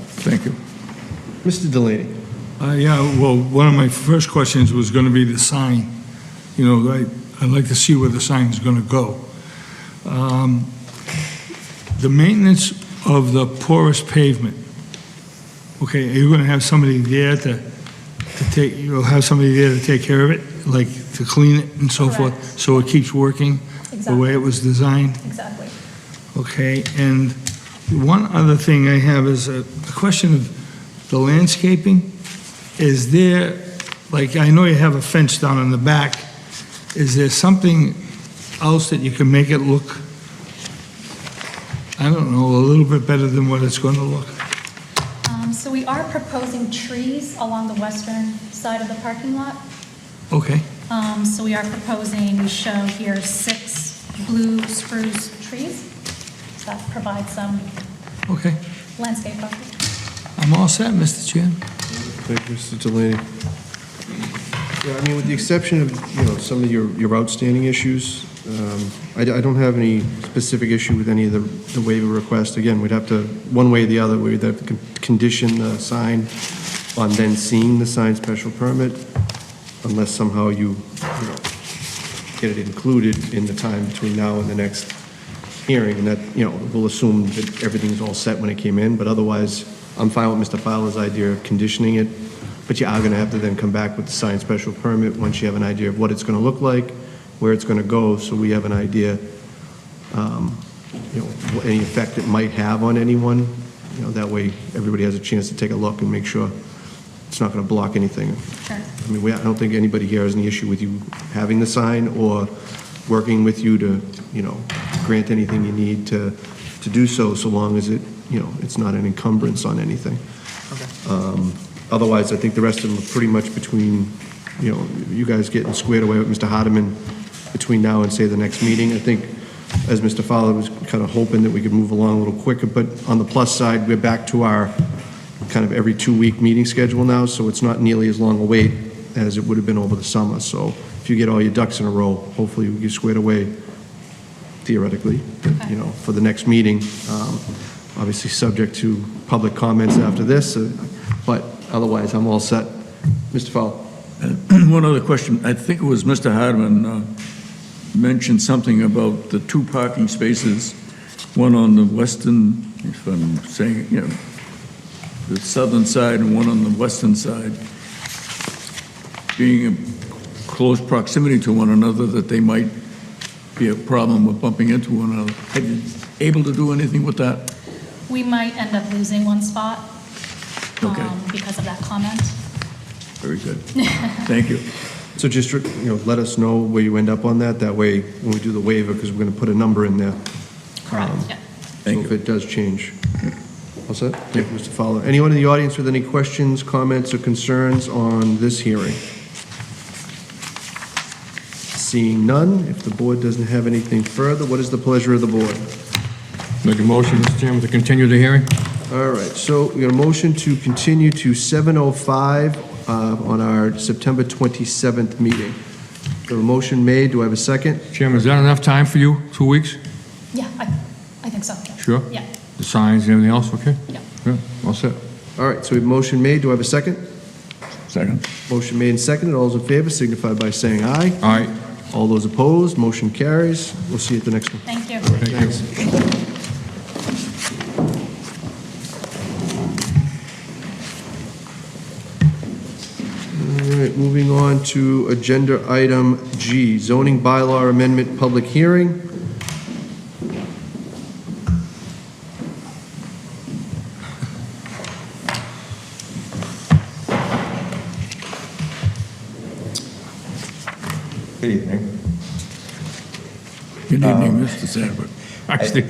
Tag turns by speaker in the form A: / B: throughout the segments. A: Thank you.
B: Mr. Delaney.
C: Uh, Yeah, well, one of my first questions was going to be the sign. You know, I- I'd like to see where the sign's going to go. Um, The maintenance of the porous pavement, okay, are you going to have somebody there to to take, you'll have somebody there to take care of it, like to clean it and so forth?
D: Correct.
C: So it keeps working the way it was designed?
D: Exactly.
C: Okay, and one other thing I have is a a question of the landscaping. Is there, like, I know you have a fence down in the back, is there something else that you can make it look, I don't know, a little bit better than what it's going to look?
D: Um, So we are proposing trees along the western side of the parking lot.
C: Okay,
D: Um, So we are proposing, we show here six blue spruce trees. So that provides some
C: okay.
D: landscape buffer.
C: I'm all set, Mr. Chair.
B: Thank you, Mr. Delaney. Yeah, I mean, with the exception of, you know, some of your, your outstanding issues, um, I, I don't have any specific issue with any of the, the waiver requests. Again, we'd have to, one way or the other, we'd have to con- condition the sign on then seeing the sign special permit, unless somehow you, you know, get it included in the time between now and the next hearing, and that, you know, we'll assume that everything's all set when it came in, but otherwise, I'm fine with Mr. Fowler's idea of conditioning it, but you are gonna have to then come back with the signed special permit once you have an idea of what it's gonna look like, where it's gonna go, so we have an idea, um, you know, what any effect it might have on anyone, you know, that way, everybody has a chance to take a look and make sure it's not gonna block anything.
D: Sure.
B: I mean, we, I don't think anybody here has any issue with you having the sign or working with you to, you know, grant anything you need to, to do so, so long as it, you know, it's not an encumbrance on anything. Um, Otherwise, I think the rest of them are pretty much between, you know, you guys getting squared away with Mr. Hardeman between now and, say, the next meeting. I think, as Mr. Fowler was kind of hoping that we could move along a little quicker, but on the plus side, we're back to our kind of every two-week meeting schedule now, so it's not nearly as long a wait as it would have been over the summer. So if you get all your ducks in a row, hopefully we get squared away theoretically, you know, for the next meeting. Um, Obviously, subject to public comments after this, uh, but otherwise, I'm all set. Mr. Fowler?
A: One other question. I think it was Mr. Hardman uh, mentioned something about the two parking spaces, one on the western, if I'm saying, it, you know, the southern side and one on the western side, being in close proximity to one another, that they might be a problem with bumping into one another. Have you able to do anything with that?
D: We might end up losing one spot
A: Okay.
D: um, because of that comment.
A: Very good. Thank you.
B: So just, you know, let us know where you end up on that, that way, when we do the waiver, because we're going to put a number in there.
D: Correct,
B: Um,
D: yeah.
A: Thank
B: So
A: you.
B: if it does change. All set? Thank you, Mr. Fowler. Anyone in the audience with any questions, comments, or concerns on this hearing? Seeing none, if the board doesn't have anything further, what is the pleasure of the board?
E: Make a motion, Mr. Chairman, to continue the hearing?
B: All right, so we got a motion to continue to 7:05 uh, on our September 27th meeting. The motion made, do I have a second?
E: Chairman, is that enough time for you? Two weeks?
D: Yeah, I, I think so. yeah.
E: Sure.
D: Yeah,
E: The signs and everything else, okay?
D: yeah.
E: Yeah, all set.
B: All right, so we have a motion made, do I have a second?
A: Second.
B: Motion made and seconded, all those in favor signify by saying aye.
E: All right,
B: All those opposed, motion carries. We'll see you at the next one.
D: Thank you.
E: thank you.
B: All right, moving on to agenda item G, zoning bylaw amendment public hearing.
F: Good evening.
A: Good evening, Mr. Sabra.
E: Actually,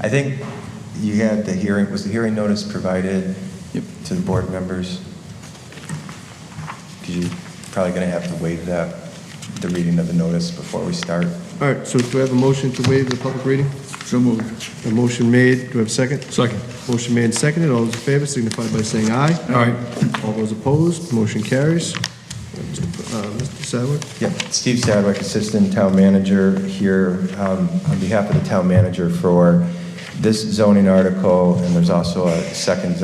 F: I think you had the hearing, was the hearing notice provided to the board members? Because you're probably going to have to waive that, the reading of the notice before we start.
B: All right, so do I have a motion to waive the public reading?
A: So moved.
B: A motion made, do I have a second?
E: second.
B: Motion made and seconded, all those in favor signify by saying aye.
E: All right,
B: All those opposed, motion carries. Mr. uh, Mr. Sadler?
F: Yep, Steve Sadwick, Assistant Town Manager here, um, on behalf of the town manager for this zoning article, and there's also a second